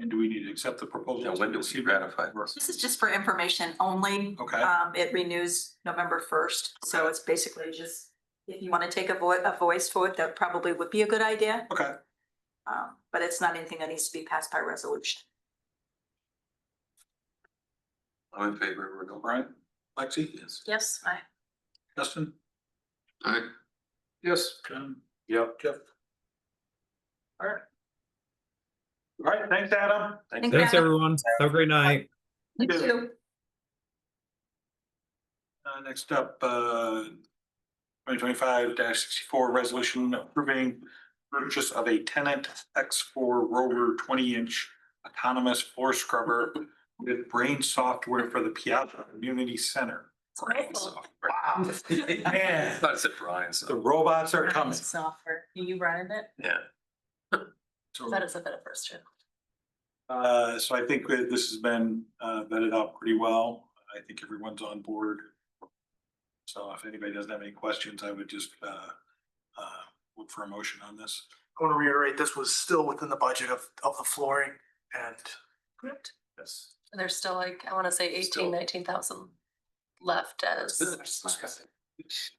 And do we need to accept the proposal? Now, when do we ratify this? This is just for information only. Okay. Um, it renews November first, so it's basically just, if you want to take a voice, a voice vote, that probably would be a good idea. Okay, Um, but it's not anything that needs to be passed by resolution. I'm in favor of renewal. Brian, Lexi, Yes. Yes, I. Justin? Aye. Yes. John? Yep. Jeff? All right. All right, thanks, Adam. Thank Thanks, Yeah. everyone. Have a great night. You too. Uh, next up, uh, twenty twenty-five sixty-four resolution approving purchase of a tenant X four Rover twenty-inch autonomous floor scrubber with brain software for the Piazza Community Center. Software. Wow. Man, Thought it said Brian, the so, robots are coming. Software, you running it? yeah. So, is a bit of first trip. uh, so I think that this has been, uh, vetted out pretty well. I think everyone's on board. So if anybody doesn't have any questions, I would just, uh, uh, look for a motion on this. I want to reiterate, this was still within the budget of, of the flooring and Correct. Yes. There's still like, I want to say Still- eighteen, nineteen thousand left as.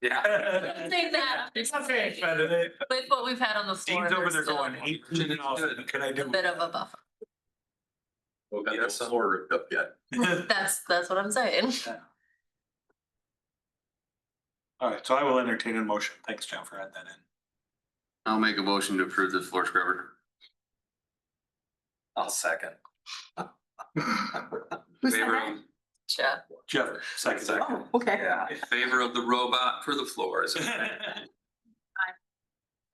Yeah. Take that. Dean's With what we've had on the floor. over there's there still going eighteen thousand, can I A do? bit of a buffer. Well, got that somewhere ripped up yet. That's, that's what I'm saying. All right, so I will entertain a motion. Thanks, John, for adding that in. I'll make a motion to approve the floor scrubber. I'll second. Favor of, Jeff. Jeff, second. Second. Oh, Okay. favor of the robot for the floors.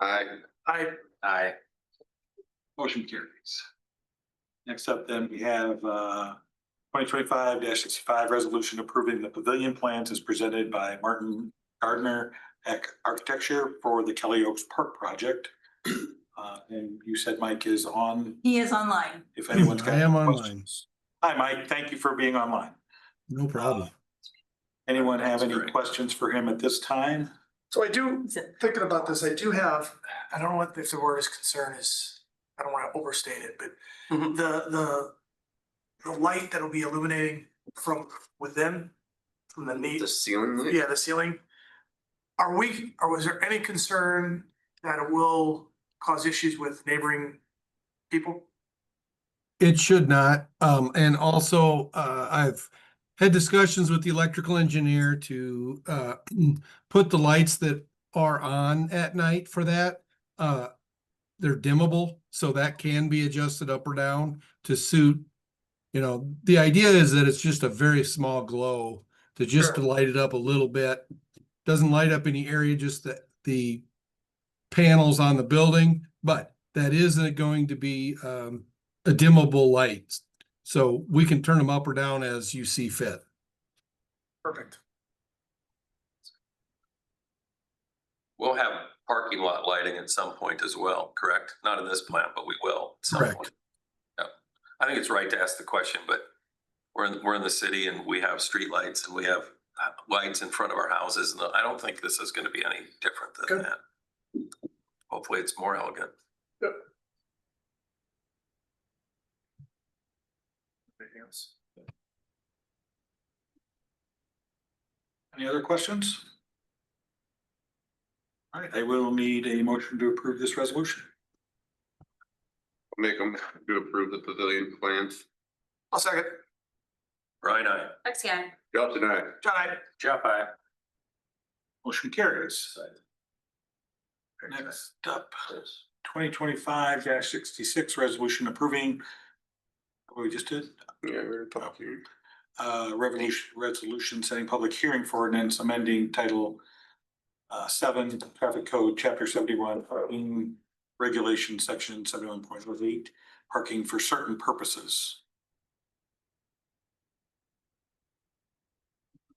Aye. I, Aye. Motion carries. Next up then, we have uh twenty twenty-five sixty-five resolution approving the pavilion plans as presented by Martin Gardner at Architecture for the Kelly Oaks Park project. Uh, and you said Mike is on, He is online. if anyone's got. I am any online. questions. Hi, Mike. Thank you for being online. No problem. Anyone have any That's great. questions for him at this time? so I do, Is it- thinking about this, I do have, I don't know what, if the word is concern is, I don't want to overstate it, but Mhm. the, the, the light that'll be illuminating from within, from the knee, The ceiling. yeah, the ceiling. Are we, or was there any concern that it will cause issues with neighboring people? It should not. Um, and also, uh, I've had discussions with the electrical engineer to, uh, put the lights that are on at night for that, uh, they're dimmable, so that can be adjusted up or down to suit, you know, the idea is that it's just a very small glow to just to Sure. light it up a little bit. Doesn't light up any area, just the, the panels on the building, but that isn't going to be, um, a dimmable light. So we can turn them up or down as you see fit. Perfect. We'll have parking lot lighting at some point as well, correct? Not in this plant, but we will. at some Correct. point. Yeah, I think it's right to ask the question, but we're in, we're in the city and we have streetlights and we have uh, lights in front of our houses and I don't think this is gonna be any different than Good. that. Hopefully it's more elegant. Anything else? Any other questions? All right, I will need a motion to approve this resolution. Make them to approve the pavilion plans. I'll second. Brian, I, Lexi, I. Justin, aye. John, I, Jeff, I. Motion carries. Next up, twenty twenty-five sixty-six resolution approving. What we just did, Yeah, we're talking. uh, revenue resolution setting public hearing for ordinance amending title. Uh, seven, traffic code, chapter seventy-one, parking regulation, section seventy-one point oh eight, parking for certain purposes.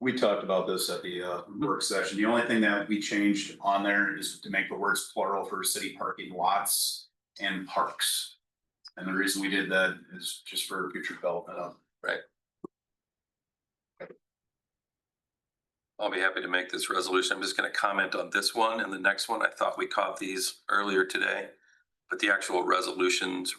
we talked about this at the uh work session. The only thing that we changed on there is to make the words plural for city parking lots and parks. And the reason we did that is just for future development of I'll be happy to make this resolution. I'm just gonna comment on this one and the next one. I thought we caught these earlier today. But the actual resolutions